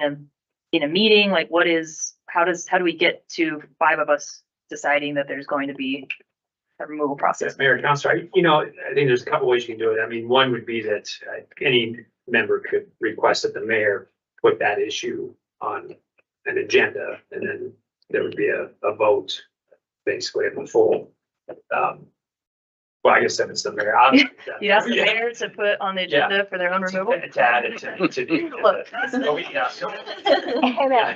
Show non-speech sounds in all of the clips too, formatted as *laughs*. in, in a meeting, like what is, how does, how do we get to five of us deciding that there's going to be a removal process? Yes, Mayor and Council, I- you know, I think there's a couple ways you can do it. I mean, one would be that uh, any member could request that the mayor put that issue on an agenda, and then there would be a, a vote, basically, in the full. um, Well, I guess if it's *laughs* the mayor. I'll- You ask the Yeah. mayor to put on the agenda for their own *laughs* removal? To add it to- to the agenda. Look. *laughs* Oh, yeah.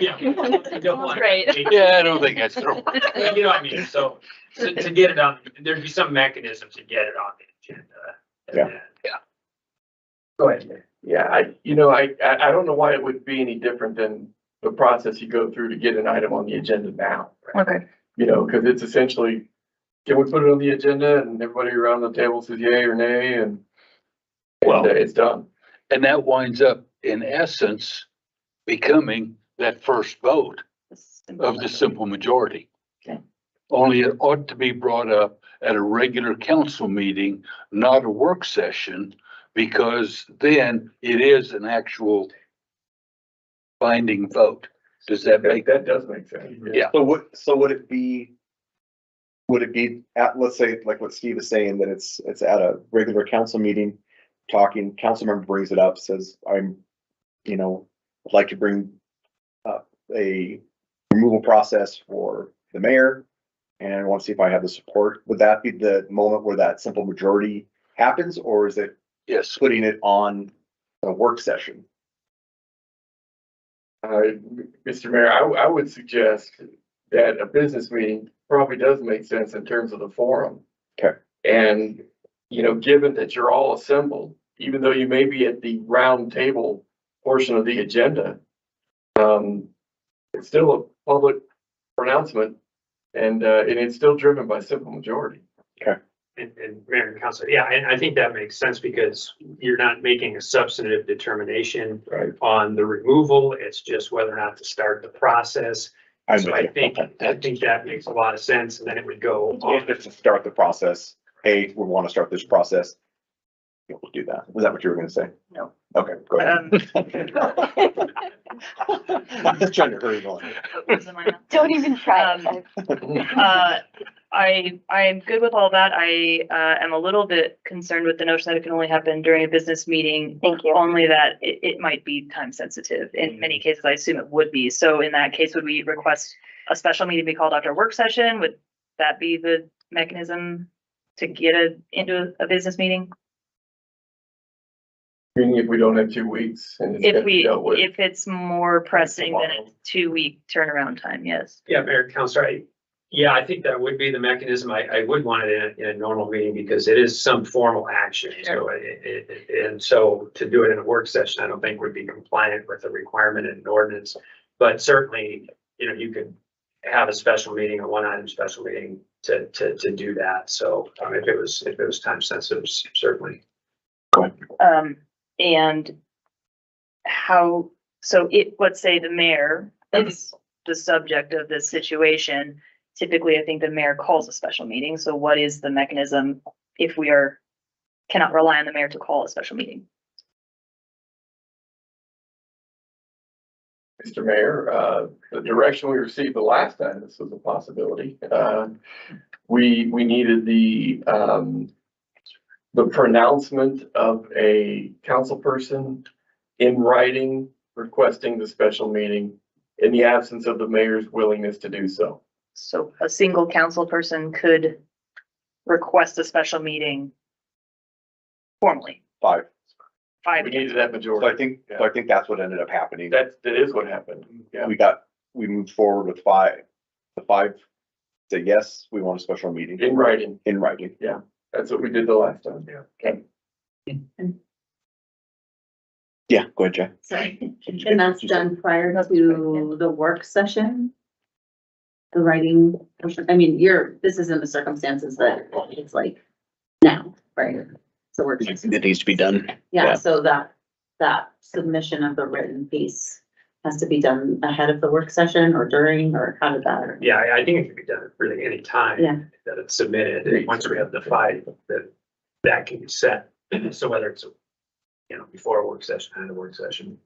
Yeah. *laughs* Yeah, You don't want- Right. Yeah, I don't think that's true. You know what I mean? So, to, to get it on, there'd be some mechanism to get it on the agenda. and Yeah. then- Go ahead, Mayor. Yeah, I, you know, I, I, I don't know why it would be any different than the process you go through to get an item on the agenda now. Okay, You know, because it's essentially, can we put it on the agenda and everybody around the table says yay or nay and Well- and uh, it's done. *laughs* And that winds up, in essence, becoming that first vote of the simple majority. Okay. Only it ought to be brought up at a regular council meeting, not a work session, because then it is an actual binding vote. Does that make, That does make sense. Yeah. So what, so would it be? Would it be at, let's say, like what Steve is saying, that it's, it's at a regular council meeting, talking, council member brings it up, says, I'm, you know, I'd like to bring up a removal process for the mayor. And I want to see if I have the support. Would that be the moment where that simple majority happens, or is it yes, putting it on a work session? Uh, Mr. Mayor, I, w- I would suggest that a business meeting probably does make sense in terms of the forum. Okay. And, you know, given that you're all assembled, even though you may be at the round table portion of the agenda, um, it's still a public pronouncement and, uh, and it's still driven by simple majority. And, and mayor and council, yeah, and I think that makes sense because you're not making a substantive determination Right. on the removal. It's just whether or not to start the process. I'm So with I you. think, Okay. I think that makes a lot of sense and then it would go If on. it's to start the process, hey, we want to start this process. We'll do that. Was that what you were gonna say? No. Okay, go Um, ahead. I'm just trying to hurry on. those are mine. Don't even try. Um, *laughs* Uh, I, I'm good with all that. I, uh, am a little bit concerned with the notion that it can only happen during a business meeting. Thank you. Only that it, it might be time sensitive. In many cases, I assume it would be. So in that case, would we request a special meeting be called after a work session? Would that be the mechanism to get it into a business meeting? Meaning if we don't have two weeks and it's If gonna be we, dealt with. if it's more pressing than a two-week turnaround time, yes. Yeah, Mayor and Council, I, yeah, I think that would be the mechanism. I, I would want it in a, in a normal meeting because it is some formal action. So it, it- it, and so to do it in a work session, I don't think would be compliant with the requirement in an ordinance. But certainly, you know, you could have a special meeting, a one-item special meeting to, to, to do that. So um, if it was, if it was time sensitive, certainly. Um, and how, so it, let's say the mayor is the subject of this situation. Typically, I think the mayor calls a special meeting, so what is the mechanism if we are, cannot rely on the mayor to call a special meeting? Mr. Mayor, uh, the direction we received the last time this was a possibility, uh, we, we needed the, um, the pronouncement of a council person in writing requesting the special meeting in the absence of the mayor's willingness to do so. So a single council person could request a special meeting formally, Five. five We needed that So I majority. think, so I think that's what ended up happening. That's, that is what happened. Yeah. We got, we moved forward with five. The five say, yes, we want a special meeting. In writing. In writing. That's what we did the last time. Yeah, go ahead, Jay. Sorry, and that's done prior to the work session? The writing, portion? I mean, you're, this isn't the circumstances that it's like now, right? So we're. It needs to be done. Yeah, so that, that submission of the written piece has to be done ahead of the work session or during, or how did that? or- Yeah, I- I think it could be done really any time. Yeah. that it's submitted, and once we have the file, that, *clears throat* that can be set, so whether it's, you know, before a work session, and a work session.